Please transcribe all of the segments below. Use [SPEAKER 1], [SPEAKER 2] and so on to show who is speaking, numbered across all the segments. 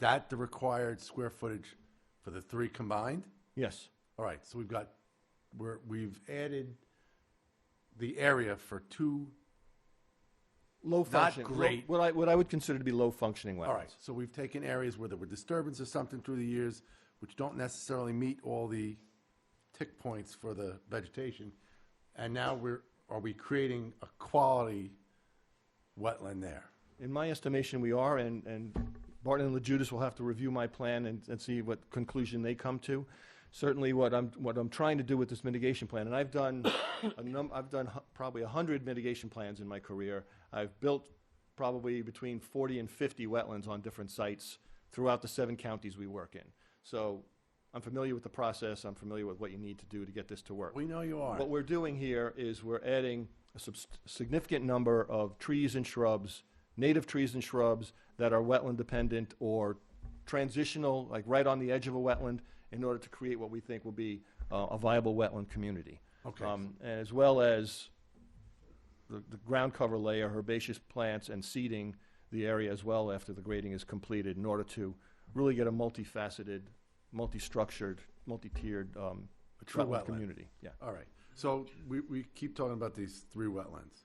[SPEAKER 1] that the required square footage for the three combined?
[SPEAKER 2] Yes,
[SPEAKER 1] All right, so we've got, we're, we've added the area for two,
[SPEAKER 2] low functioning. low-
[SPEAKER 1] great.
[SPEAKER 2] What I, what I would consider to be low functioning wetlands.
[SPEAKER 1] all right, so we've taken areas where there were disturbances or something through the years, which don't necessarily meet all the tick points for the vegetation, and now we're, are we creating a quality wetland there?
[SPEAKER 2] In my estimation, we are, and, and Barton and LeJudas will have to review my plan and, and see what conclusion they come to. Certainly, what I'm, what I'm trying to do with this mitigation plan, and I've done a num, I've done hu- probably a hundred mitigation plans in my career. I've built probably between forty and fifty wetlands on different sites throughout the seven counties we work in. So I'm familiar with the process, I'm familiar with what you need to do to get this to work.
[SPEAKER 1] We know you are.
[SPEAKER 2] What we're doing here is we're adding a subs- significant number of trees and shrubs, native trees and shrubs that are wetland dependent or transitional, like right on the edge of a wetland, in order to create what we think will be uh, a viable wetland community.
[SPEAKER 1] Okay.
[SPEAKER 2] Um, and As well as the, the ground cover layer, herbaceous plants, and seeding the area as well after the grading is completed in order to really get a multifaceted, multi-structured, multi-tiered um,
[SPEAKER 1] true
[SPEAKER 2] wetland
[SPEAKER 1] wetland.
[SPEAKER 2] community. Yeah.
[SPEAKER 1] All right, so we, we keep talking about these three wetlands.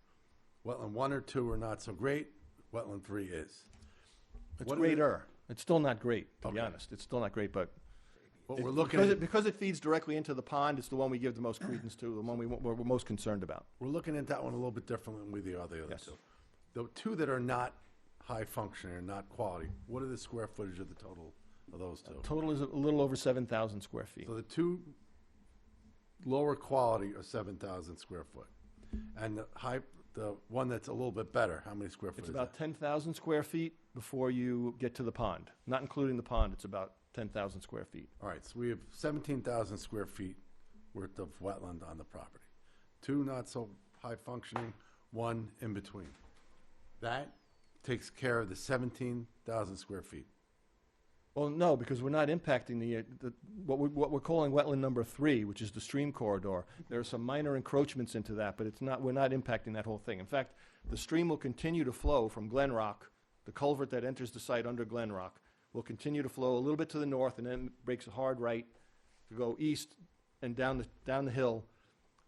[SPEAKER 1] Wetland one or two are not so great, wetland three is.
[SPEAKER 2] It's
[SPEAKER 1] What are the-
[SPEAKER 2] greater. It's still not great, to be
[SPEAKER 1] Okay.
[SPEAKER 2] honest. It's still not great, but
[SPEAKER 1] What we're looking
[SPEAKER 2] because
[SPEAKER 1] at,
[SPEAKER 2] it, because it feeds directly into the pond. It's the one we give the most credence to, the one we, we're, we're most concerned about.
[SPEAKER 1] We're looking at that one a little bit differently than we the other, the other
[SPEAKER 2] Yes.
[SPEAKER 1] two. The two that are not high functioning or not quality, what are the square footage of the total of those two?
[SPEAKER 2] Total is a little over seven thousand square feet.
[SPEAKER 1] So the two lower quality are seven thousand square foot, and the high, the one that's a little bit better, how many square foot
[SPEAKER 2] It's
[SPEAKER 1] is
[SPEAKER 2] about
[SPEAKER 1] that?
[SPEAKER 2] ten thousand square feet before you get to the pond. Not including the pond, it's about ten thousand square feet.
[SPEAKER 1] All right, so we have seventeen thousand square feet worth of wetland on the property. Two not so high functioning, one in between. That takes care of the seventeen thousand square feet.
[SPEAKER 2] Well, no, because we're not impacting the, uh, the what, we, what we're calling wetland number three, which is the stream corridor. There are some minor encroachments into that, but it's not, we're not impacting that whole thing. In fact, the stream will continue to flow from Glen Rock, the culvert that enters the site under Glen Rock, will continue to flow a little bit to the north and then breaks a hard right to go east and down the, down the hill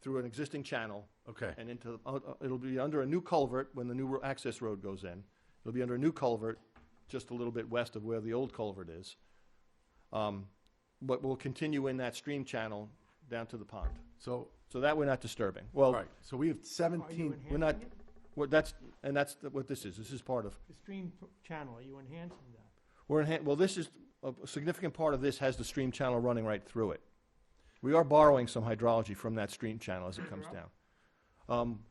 [SPEAKER 2] through an existing channel
[SPEAKER 1] Okay.
[SPEAKER 2] and into, uh, uh, it'll be under a new culvert when the new ro- access road goes in. It'll be under a new culvert, just a little bit west of where the old culvert is. Um, But we'll continue in that stream channel down to the pond.
[SPEAKER 1] So
[SPEAKER 2] So that we're not disturbing.
[SPEAKER 1] All
[SPEAKER 2] Well,
[SPEAKER 1] right, so we have 17,
[SPEAKER 2] we're not, well, that's, and that's the- what this is. This is part of,
[SPEAKER 3] The stream p- channel, are you enhancing that?
[SPEAKER 2] we're in, well, this is, a significant part of this has the stream channel running right through it. We are borrowing some hydrology from that stream channel as it comes down. Um,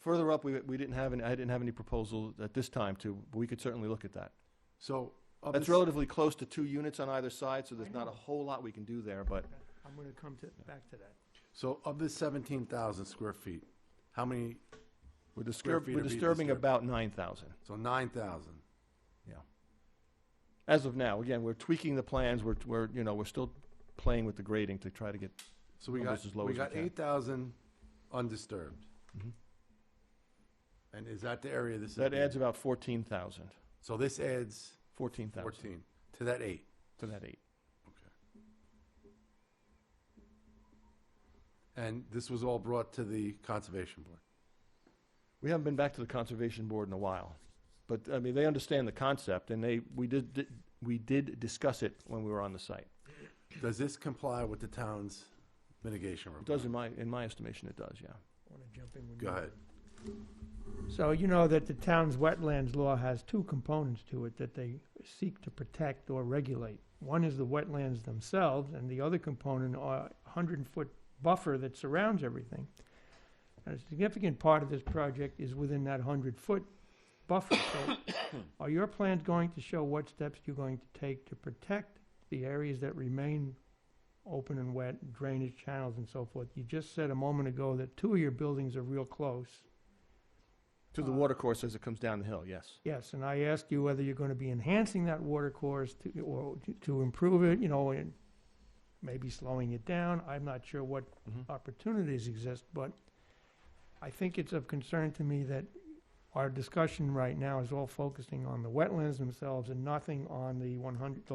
[SPEAKER 2] Further up, we, we didn't have any, I didn't have any proposal at this time to, but we could certainly look at that.
[SPEAKER 1] so. of
[SPEAKER 2] That's
[SPEAKER 1] this-
[SPEAKER 2] relatively close to two units on either side, so there's not a whole lot we can do there, but
[SPEAKER 3] I'm gonna come to, back to that.
[SPEAKER 1] So of the 17,000 square feet, how many,
[SPEAKER 2] we're
[SPEAKER 1] Square
[SPEAKER 2] disturbing,
[SPEAKER 1] feet
[SPEAKER 2] we're
[SPEAKER 1] are being
[SPEAKER 2] disturbing
[SPEAKER 1] disturbed.
[SPEAKER 2] about nine thousand,
[SPEAKER 1] so 9,000.
[SPEAKER 2] yeah. As of now, again, we're tweaking the plans, we're, we're, you know, we're still playing with the grading to try to get,
[SPEAKER 1] So we got,
[SPEAKER 2] Almost as Oh, low
[SPEAKER 1] we
[SPEAKER 2] as we
[SPEAKER 1] got
[SPEAKER 2] can.
[SPEAKER 1] 8,000 undisturbed. And is that the area this is?
[SPEAKER 2] Mm-hmm. that adds about fourteen thousand,
[SPEAKER 1] So this adds
[SPEAKER 2] fourteen thousand
[SPEAKER 1] 14 to that eight.
[SPEAKER 2] to that eight.
[SPEAKER 1] And this was all brought to the Conservation Board.
[SPEAKER 2] We haven't been back to the Conservation Board in a while, but, I mean, they understand the concept, and they, we did, di- we did discuss it when we were on the site.
[SPEAKER 1] Does this comply with the town's mitigation
[SPEAKER 2] It
[SPEAKER 1] report?
[SPEAKER 2] does, in my, in my estimation, it does, yeah.
[SPEAKER 3] I wanna jump in when you.
[SPEAKER 1] Go ahead.
[SPEAKER 3] So you know that the town's wetlands law has two components to it that they seek to protect or regulate. One is the wetlands themselves, and the other component are a hundred-foot buffer that surrounds everything. And a significant part of this project is within that hundred-foot buffer. So are your plans going to show what steps you're going to take to protect the areas that remain open and wet, drainage channels and so forth? You just said a moment ago that two of your buildings are real close.
[SPEAKER 2] To the
[SPEAKER 3] Uh,
[SPEAKER 2] water course as it comes down the hill, yes.
[SPEAKER 3] Yes, and I asked you whether you're going to be enhancing that water course to, or to- to improve it, you know, and maybe slowing it down. I'm not sure what
[SPEAKER 2] Mhm.
[SPEAKER 3] opportunities exist, but I think it's of concern to me that our discussion right now is all focusing on the wetlands themselves and nothing on the one hundred,